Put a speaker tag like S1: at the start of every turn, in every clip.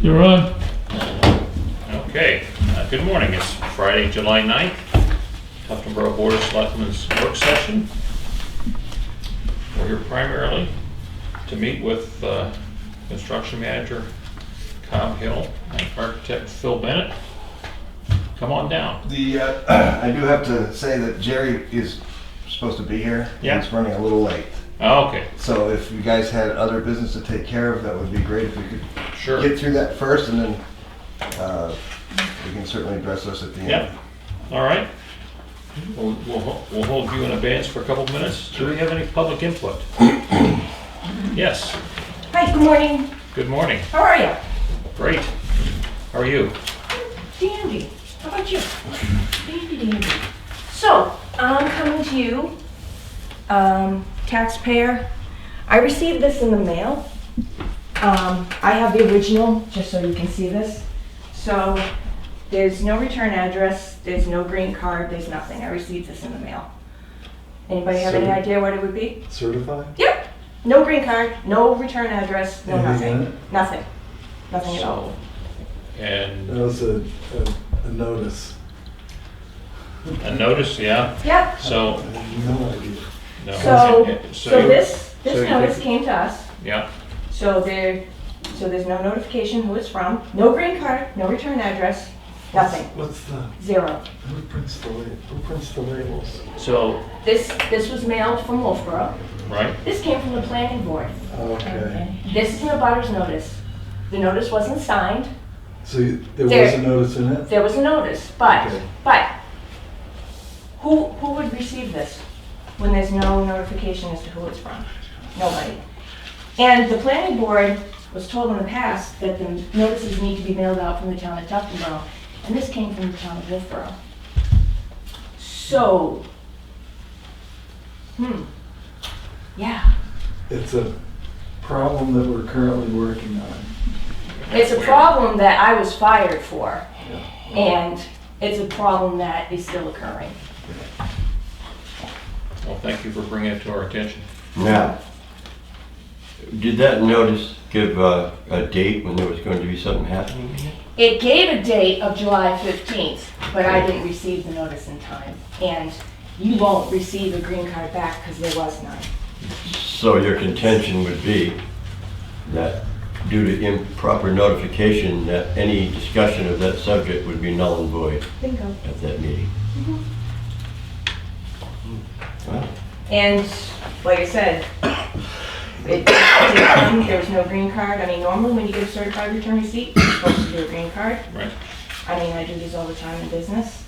S1: You're on.
S2: Okay, uh, good morning. It's Friday, July 9th, Tufton Borough Board of Selectmen's work session. We're here primarily to meet with uh, construction manager Cobb Hill and architect Phil Bennett. Come on down.
S3: The, uh, I do have to say that Jerry is supposed to be here.
S2: Yeah.
S3: He's running a little late.
S2: Okay,
S3: So if you guys had other business to take care of, that would be great if we could
S2: sure.
S3: get through that first and then, uh, we can certainly address those at the end.
S2: Yep, all right. We'll, we'll ho- we'll hold you in abeyance for a couple minutes. Do we have any public input? Yes,
S4: Hi, good morning.
S2: good morning.
S4: How are you?
S2: Great. How are you?
S4: Dandy. How about you? Dandy, dandy. So, I'm coming to you, um, taxpayer. I received this in the mail. Um, I have the original, just so you can see this. So, there's no return address, there's no green card, there's nothing. I received this in the mail. Anybody have any
S5: So-
S4: idea what it would be?
S5: Certified?
S4: Yep. No green card, no return address, no
S5: Anything in
S4: nothing. Nothing. Nothing at all.
S2: So, And
S5: That was a, a, a notice.
S2: a notice, yeah,
S4: Yep.
S2: so,
S5: I had no idea.
S2: no.
S4: So, so
S2: you-
S4: this,
S2: so you
S4: this notice
S2: think-
S4: came to us,
S2: Yeah,
S4: so there, so there's no notification who it's from, no green card, no return address, nothing,
S5: What's the,
S4: zero.
S5: who prints the labels? Who prints the labels?
S2: so,
S4: This, this was mailed from Wolfboro,
S2: right,
S4: this came from the planning board,
S5: Okay.
S4: this is an abutters notice. The notice wasn't signed,
S5: So you- there was
S4: There.
S5: a notice in it?
S4: there was a notice, but,
S5: Okay.
S4: but, who, who would receive this when there's no notification as to who it's from? Nobody. And the planning board was told in the past that the notices need to be mailed out from the town of Tuftonboro, and this came from the town of Wolfboro. So, hmm, yeah,
S5: It's a problem that we're currently working on.
S4: it's a problem that I was fired for, and it's a problem that is still occurring.
S2: well, thank you for bringing it to our attention.
S6: Now, did that notice give uh, a date when there was going to be something happening?
S4: It gave a date of July 15th, but I didn't receive the notice in time. And you won't receive a green card back because there was none.
S6: So your contention would be that due to improper notification, that any discussion of that subject would be null and void
S4: Bingo.
S6: at that meeting? Well,
S4: And like I said, it, there was no green card. I mean, normally when you get a certified return receipt, you're supposed to do a green card.
S2: Right.
S4: I mean, I do these all the time in business.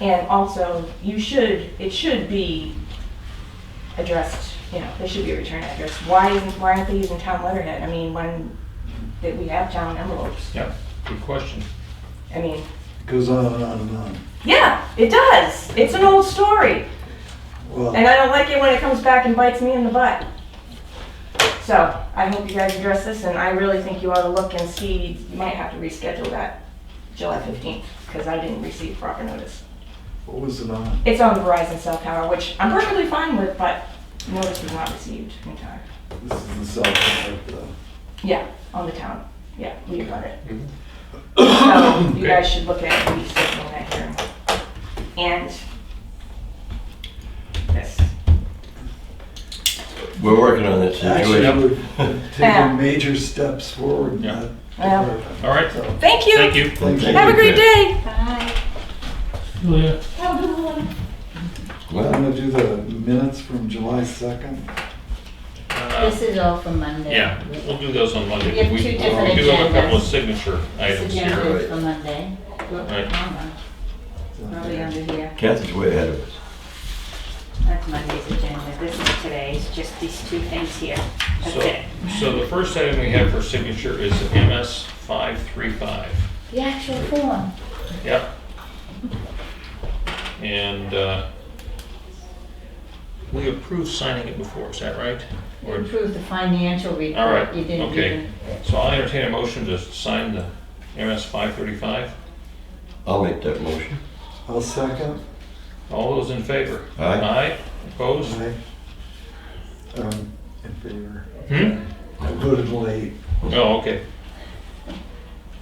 S4: And also, you should, it should be addressed, you know, there should be a return address. Why isn't, why aren't they using town letterhead? I mean, when, that we have town envelopes.
S2: Yeah, good question.
S4: I mean,
S5: It goes on and on and on.
S4: yeah, it does. It's an old story. And
S5: Well,
S4: I don't like it when it comes back and bites me in the butt. So I hope you guys address this and I really think you ought to look and see, you might have to reschedule that July 15th because I didn't receive proper notice.
S5: what was it on?
S4: It's on Verizon cell tower, which I'm perfectly fine with, but notice was not received in time.
S5: This is the cell phone, the,
S4: Yeah, on the town. Yeah, we got it. So you guys should look at rescheduling that hearing. And this.
S6: We're working on that
S5: actually,
S6: situation.
S5: we've
S4: Yeah.
S5: taken major steps forward in
S2: Yeah.
S5: that
S4: Yeah.
S5: department.
S2: All right,
S5: So,
S4: Thank you.
S2: thank you.
S5: thank you.
S4: Have a great day.
S1: Leah,
S4: Have a good one.
S5: I'm
S6: Well,
S5: gonna do the minutes from July second.
S2: Uh,
S7: This is all from Monday.
S2: Yeah, we'll- we'll do those on Monday.
S7: We have two different
S2: We do have a couple of
S7: agendas.
S2: signature items
S7: This
S2: here.
S7: agenda is for Monday.
S2: Right.
S7: Probably under here.
S6: Kathy's way ahead of us.
S7: That's Monday's agenda. This is today's, just these two things here. That's
S2: So,
S7: it.
S2: so the first item we have for signature is MS 535.
S7: The actual form.
S2: Yep. And uh, we approved signing it before, is that right?
S7: You
S2: Or
S7: approved the financial report.
S2: All right,
S7: You didn't
S2: okay.
S7: even-
S2: So I'll entertain a motion to sign the MS 535.
S6: I'll make that motion.
S5: I'll second.
S2: All those in favor?
S6: Aye.
S2: Aye, opposed?
S5: Aye. Um, in favor.
S2: Hmm?
S5: I voted late.
S2: Oh, okay.